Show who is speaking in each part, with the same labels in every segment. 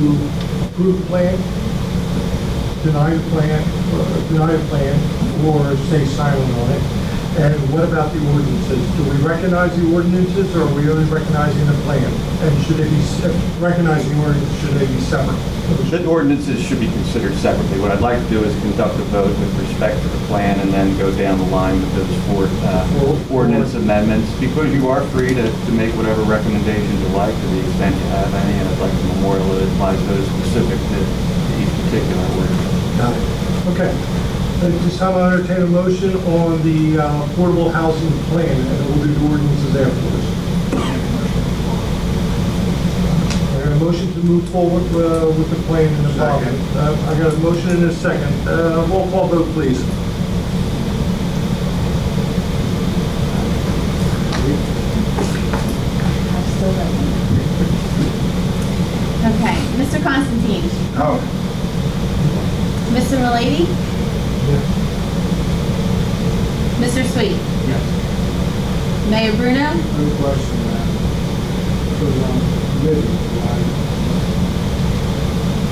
Speaker 1: to approve plan, deny the plan, or deny the plan, or stay silent on it? And what about the ordinances? Do we recognize the ordinances, or are we only recognizing the plan? And should they be, se- recognizing the ordinance, should they be separate?
Speaker 2: The ordinances should be considered separately. What I'd like to do is conduct a vote with respect to the plan and then go down the line with those four uh, ordinance amendments, because you are free to, to make whatever recommendations you like to the extent you have any, and I'd like to memorialize those specific to to each particular ordinance.
Speaker 1: Got it. Okay. At this time, I'll entertain a motion on the uh, affordable housing plan, and we'll do the ordinances afterwards. I got a motion to move forward uh, with the plan in the pocket. Uh, I got a motion and a second. Uh, Roll call vote, please.
Speaker 3: I'm still waiting. Okay, Mr. Constantine?
Speaker 2: No.
Speaker 3: Mr. Malady? Mr. Sweet?
Speaker 4: Yes.
Speaker 3: Mayor Bruno?
Speaker 4: No question, man. Because I'm
Speaker 1: um,
Speaker 4: committed, right?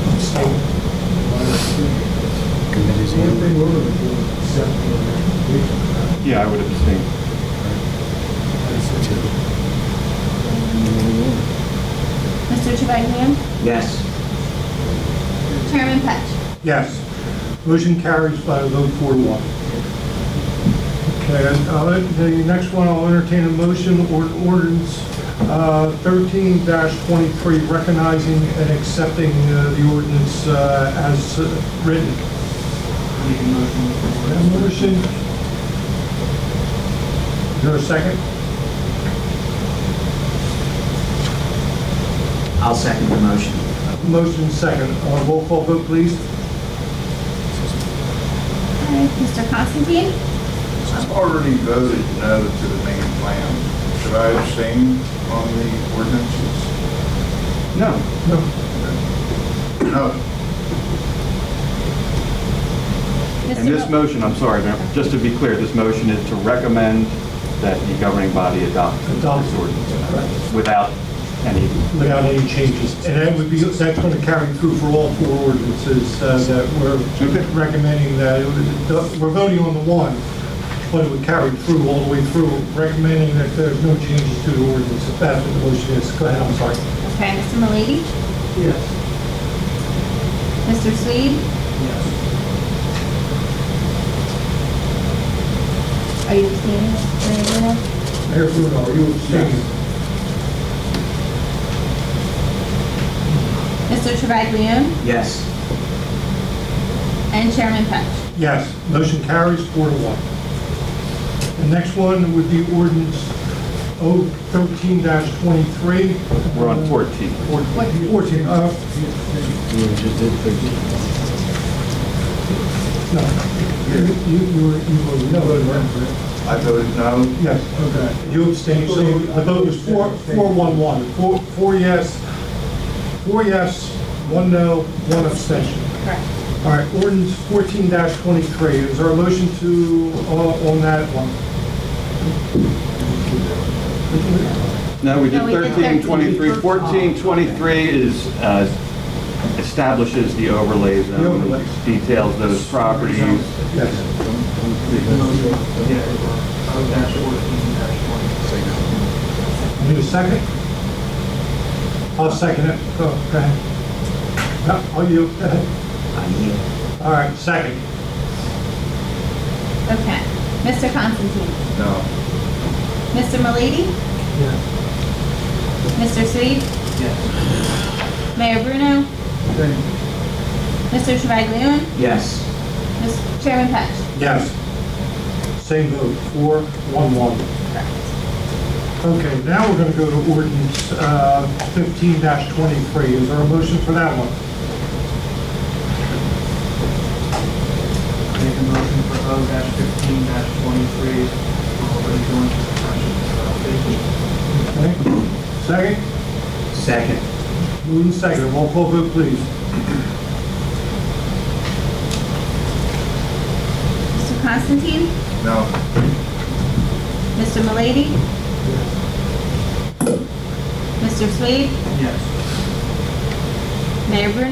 Speaker 4: I'm staying. Committee's. The only thing we're gonna do is accept the recommendation.
Speaker 2: Yeah, I would abstain.
Speaker 3: Mr. Trevelyan?
Speaker 2: Yes.
Speaker 3: Chairman Petch?
Speaker 1: Yes. Motion carries by a vote four to one. Okay, and I'll let- the next one, I'll entertain a motion or ordinance uh, thirteen twenty-three, recognizing and accepting uh, the ordinance uh, as uh, written.
Speaker 4: Make a
Speaker 1: That
Speaker 4: motion.
Speaker 1: motion. Is there a second?
Speaker 5: I'll second the motion.
Speaker 1: Motion second. Uh, Roll call vote, please.
Speaker 3: Okay, Mr. Constantine?
Speaker 6: I've already voted no to the main plan. Should I abstain on the ordinances?
Speaker 2: No.
Speaker 1: No.
Speaker 6: No.
Speaker 2: And this
Speaker 3: Mr. Mo-
Speaker 2: motion, I'm sorry, ma'am, just to be clear, this motion is to recommend that the governing body adopt this
Speaker 1: Adopt.
Speaker 2: ordinance without any
Speaker 1: Without any changes. And that would be, that's going to carry through for all four ordinances uh, that we're
Speaker 2: Okay.
Speaker 1: recommending that, it would- we're voting on the one, but it would carry through all the way through, recommending that there's no changes to the ordinance, if that's what the motion is. Go ahead, I'm sorry.
Speaker 3: Okay, Mr. Malady?
Speaker 4: Yes.
Speaker 3: Mr. Sweet?
Speaker 4: Yes.
Speaker 3: Are you abstaining, Mr. Bruno?
Speaker 1: Mayor Bruno, are you abstaining?
Speaker 3: Mr. Trevelyan?
Speaker 5: Yes.
Speaker 3: And Chairman Petch?
Speaker 1: Yes, motion carries four to one. The next one would be ordinance 013-23.
Speaker 2: We're on 14.
Speaker 1: Or- 14, uh, no. You, you, you were, you were, no,
Speaker 4: Voted
Speaker 1: no, no.
Speaker 6: I voted no.
Speaker 1: Yes.
Speaker 4: Okay.
Speaker 1: You abstained, so the vote was four, four, one, one. Four, four yes, four yes, one no, one abstention.
Speaker 3: Correct.
Speaker 1: All right, ordinance fourteen twenty-three, is there a motion to, uh, on that one?
Speaker 2: No, we did
Speaker 3: No, we did
Speaker 2: 13, 23.
Speaker 3: 13.
Speaker 2: 14, 23 is, uh, establishes the overlay
Speaker 1: The
Speaker 2: zone,
Speaker 1: overlays.
Speaker 2: details those properties.
Speaker 1: Yes. Need a second? I'll second it, go, go ahead. No, oh, you, go ahead.
Speaker 5: I yield.
Speaker 1: All right, second.
Speaker 3: Okay. Mr. Constantine?
Speaker 6: No.
Speaker 3: Mr. Malady? Mr. Sweet?
Speaker 4: Yes.
Speaker 3: Mayor Bruno?
Speaker 4: Thank you.
Speaker 3: Mr. Trevelyan?
Speaker 5: Yes.
Speaker 3: Mr. Chairman Petch?
Speaker 1: Yes. Same vote, four, one, one.
Speaker 3: Correct.
Speaker 1: Okay, now we're going to go to ordinance uh, fifteen twenty-three. Is there a motion for that one?
Speaker 4: Make a motion for O fifteen twenty-three, for the joint compression salvation.
Speaker 1: Okay.
Speaker 4: uh,
Speaker 1: Second?
Speaker 5: Second.
Speaker 1: Moving second. Roll call vote, please.
Speaker 3: Mr. Constantine?
Speaker 6: No.
Speaker 3: Mr. Malady? Mr. Swade?
Speaker 4: Yes.
Speaker 3: Mayor Bruno